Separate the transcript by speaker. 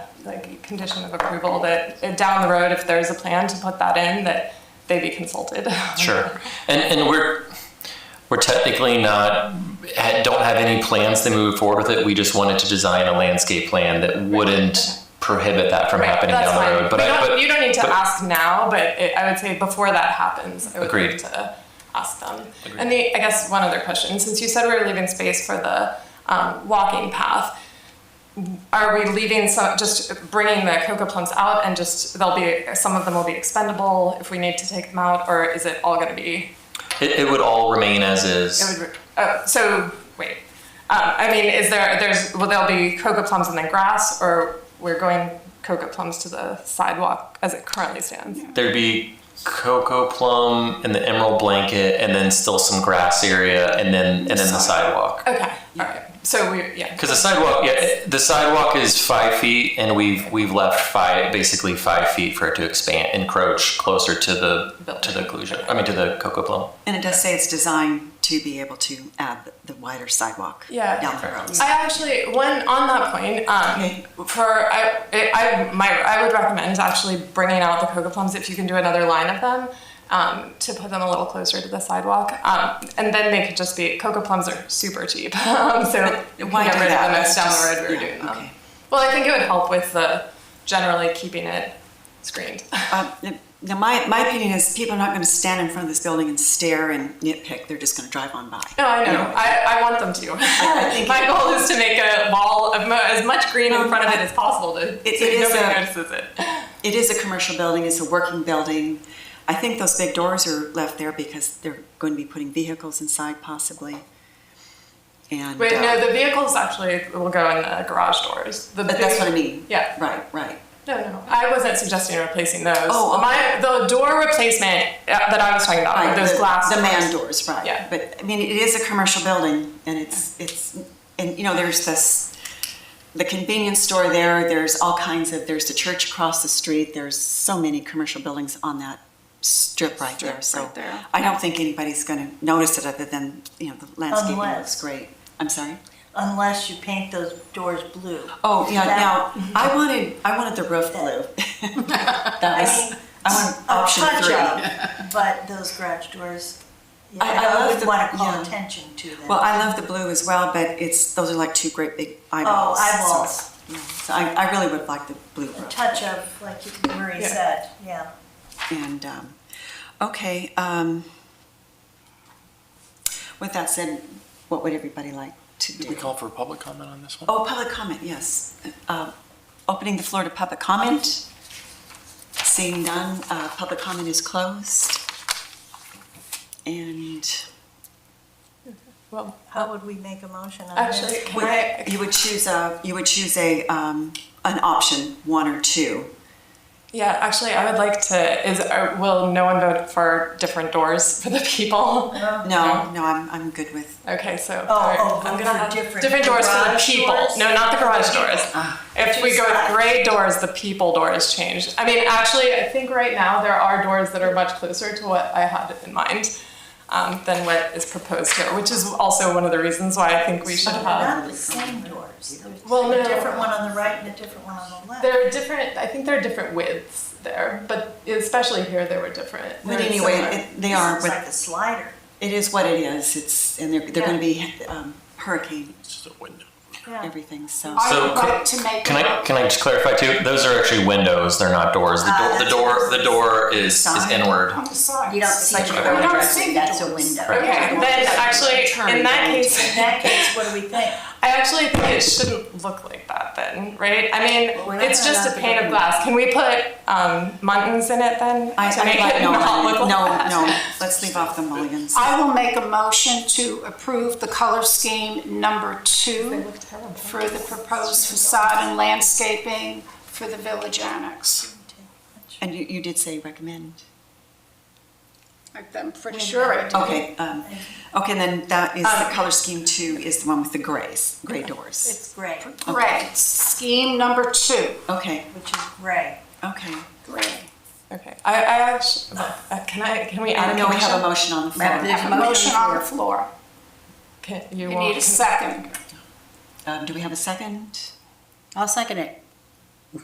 Speaker 1: like condition of approval that uh, down the road, if there's a plan to put that in, that they be consulted.
Speaker 2: Sure. And, and we're, we're technically not, ha- don't have any plans to move forward with it. We just wanted to design a landscape plan that wouldn't prohibit that from happening
Speaker 1: That's
Speaker 2: down the
Speaker 1: fine.
Speaker 2: road. But
Speaker 1: We
Speaker 2: I-
Speaker 1: don't-
Speaker 2: but-
Speaker 1: you don't need to
Speaker 2: but-
Speaker 1: ask now, but it, I would say before that happens, I would
Speaker 2: Agreed.
Speaker 1: like to ask them. And the, I guess one other question, since you said we were leaving space for the um, walking path, are we leaving some, just bringing the cocoa plums out and just they'll be some of them will be expendable if we need to take them out, or is it all going to be?
Speaker 2: It, it would all remain as
Speaker 1: It
Speaker 2: is.
Speaker 1: would, re- oh, so wait, um, I mean, is there there's will there be cocoa plums and then grass, or we're going cocoa plums to the sidewalk as it currently stands?
Speaker 2: There'd be cocoa plum and the emerald blanket and then still some grass area and then, and then the sidewalk.
Speaker 1: Okay, all right. So we yeah.
Speaker 2: Because the sidewalk, yeah, the sidewalk is five feet, and we've we've left five, basically five feet for it to expand, encroach closer to the to the occlusion. I mean, to the cocoa plum.
Speaker 3: And it does say it's designed to be able to add the wider sidewalk
Speaker 1: Yeah.
Speaker 3: down the road.
Speaker 1: I actually, when on that point, um, for I, it, I, my, I would recommend actually bringing out the coca plums if you can do another line of them um, to put them a little closer to the sidewalk, um, and then they could just be coca plums are super cheap, um, so you can
Speaker 3: Why
Speaker 1: get
Speaker 3: do
Speaker 1: rid of
Speaker 3: that?
Speaker 1: them if
Speaker 3: That's
Speaker 1: down the
Speaker 3: just-
Speaker 1: road we were
Speaker 3: yeah,
Speaker 1: doing them.
Speaker 3: okay.
Speaker 1: Well, I think it would help with the generally keeping it screened.
Speaker 3: Um, Now, my, my opinion is people are not going to stand in front of this building and stare and nitpick. They're just going to drive on by.
Speaker 1: No, Oh, I know. I, I want them to. My goal is to make a wall of mo- as much green in front of it as possible to
Speaker 3: It-
Speaker 1: so
Speaker 3: it is uh,
Speaker 1: nobody
Speaker 3: a-
Speaker 1: notices it.
Speaker 3: It is a commercial building, it's a working building. I think those big doors are left there because they're going to be putting vehicles inside possibly. And,
Speaker 1: Wait,
Speaker 3: uh,
Speaker 1: no, the vehicles actually will go in the garage doors. The
Speaker 3: but that's what I mean.
Speaker 1: Yeah.
Speaker 3: Right, right.
Speaker 1: No, no, I wasn't suggesting replacing those.
Speaker 3: Oh, okay.
Speaker 1: my the door replacement uh, that I was talking about,
Speaker 3: Right,
Speaker 1: like those
Speaker 3: the-
Speaker 1: glass
Speaker 3: The
Speaker 1: doors.
Speaker 3: man doors, right.
Speaker 1: Yeah.
Speaker 3: But, I mean, it is a commercial building, and it's, it's, and, you know, there's this, the convenience store there, there's all kinds of, there's the church across the street, there's so many commercial buildings on that strip right there, so.
Speaker 4: right there.
Speaker 3: I don't think anybody's gonna notice it other than, you know, the landscaping looks
Speaker 4: Unless-
Speaker 3: great. I'm sorry?
Speaker 4: unless you paint those doors blue.
Speaker 3: Oh, yeah,
Speaker 4: That-
Speaker 3: now, I wanted, I wanted the roof blue. That
Speaker 4: I
Speaker 3: was,
Speaker 4: mean,
Speaker 3: I wanted
Speaker 4: a
Speaker 3: option
Speaker 4: touch
Speaker 3: three.
Speaker 4: up, But those garage doors, yeah,
Speaker 3: I- I love
Speaker 4: I
Speaker 3: the-
Speaker 4: would want to
Speaker 3: yeah.
Speaker 4: call attention to them.
Speaker 3: Well, I love the blue as well, but it's, those are like two great big
Speaker 4: Oh,
Speaker 3: eyeballs.
Speaker 4: eyeballs,
Speaker 3: So, yeah. So I, I really would like the blue
Speaker 4: a
Speaker 3: roof.
Speaker 4: touch of, like you- Marie
Speaker 1: Yeah.
Speaker 4: said, yeah.
Speaker 3: And, um, okay, um, with that said, what would everybody like to
Speaker 5: Did we
Speaker 3: do?
Speaker 5: call for a public comment on this one?
Speaker 3: Oh, public comment, yes. Uh, Opening the floor to public comment. Seeing none, uh, public comment is closed. And
Speaker 1: Well,
Speaker 4: How would we make a motion on this?
Speaker 1: actually, can I?
Speaker 3: would- you would choose a, you would choose a, um, an option, one or two.
Speaker 1: Yeah, actually, I would like to. Is uh, will no one vote for different doors for the people?
Speaker 3: Oh. No, no, I'm, I'm good with,
Speaker 1: Okay, so
Speaker 4: Oh,
Speaker 1: alright,
Speaker 4: oh,
Speaker 1: I'm gonna
Speaker 4: vote for
Speaker 1: have
Speaker 4: different
Speaker 1: doors for the
Speaker 4: garage
Speaker 1: people.
Speaker 4: doors?
Speaker 1: No, not the garage doors. if
Speaker 4: Two
Speaker 1: we go with
Speaker 4: sides.
Speaker 1: gray doors, the people doors changed. I mean, actually, I think right now there are doors that are much closer to what I had in mind um, than what is proposed here, which is also one of the reasons why I think we should
Speaker 4: They're
Speaker 1: have.
Speaker 3: uh,
Speaker 4: Not the same doors. There's
Speaker 1: Well, no.
Speaker 4: A different one on the right and a different one on the left.
Speaker 1: There are different. I think there are different widths there, but especially here they were different.
Speaker 3: but
Speaker 1: They're
Speaker 3: anyway,
Speaker 1: similar.
Speaker 3: it- they
Speaker 4: This
Speaker 3: are,
Speaker 4: looks like
Speaker 3: but
Speaker 4: the slider,
Speaker 3: it is what it is, it's, and they're, they're gonna be um, hurricane,
Speaker 5: It's just a window.
Speaker 4: yeah.
Speaker 3: everything, so.
Speaker 2: So
Speaker 6: I would
Speaker 2: could-
Speaker 6: like to make.
Speaker 2: Can I can I just clarify too? Those are actually windows. They're not doors. The,
Speaker 4: Ah,
Speaker 2: door
Speaker 6: Uh,
Speaker 2: the
Speaker 4: that's
Speaker 2: door
Speaker 4: what
Speaker 2: the door is is
Speaker 3: Side.
Speaker 2: inward.
Speaker 6: On the side.
Speaker 7: You don't see
Speaker 6: Like,
Speaker 7: the
Speaker 6: we
Speaker 7: door
Speaker 6: don't
Speaker 7: addressing,
Speaker 6: see
Speaker 7: that's a
Speaker 6: doors.
Speaker 7: window.
Speaker 1: Okay, then actually, in that case,
Speaker 4: In that case, what do we think?
Speaker 1: I actually think it shouldn't look like that then, right? I mean,
Speaker 4: Well, we're not
Speaker 1: it's just a
Speaker 4: allowed to
Speaker 1: pane
Speaker 4: go
Speaker 1: of glass. Can we put um, muntins in it then
Speaker 3: I,
Speaker 1: to make
Speaker 3: I,
Speaker 1: it
Speaker 3: no,
Speaker 1: not look
Speaker 3: no,
Speaker 1: like
Speaker 3: no,
Speaker 1: that?
Speaker 3: no, let's leave off the mulligans.
Speaker 6: I will make a motion to approve the color scheme number two for the proposed facade and landscaping for the Village Annex.
Speaker 3: And you, you did say recommend.
Speaker 6: Like, I'm pretty sure I did.
Speaker 3: Okay, um, okay, then that is, the color scheme two is the one with the grays, gray doors.
Speaker 4: It's gray,
Speaker 6: Gray, scheme number two,
Speaker 3: Okay,
Speaker 4: which is gray.
Speaker 3: okay.
Speaker 6: gray.
Speaker 1: Okay, I, I actually, uh, can I, can we add
Speaker 3: I
Speaker 1: a
Speaker 3: know we have a
Speaker 1: condition?
Speaker 3: motion on the floor.
Speaker 7: Right, there's
Speaker 6: A motion on the floor.
Speaker 1: Can, you
Speaker 6: You
Speaker 1: won't
Speaker 6: need a second.
Speaker 3: Um, do we have a second?
Speaker 7: I'll second it.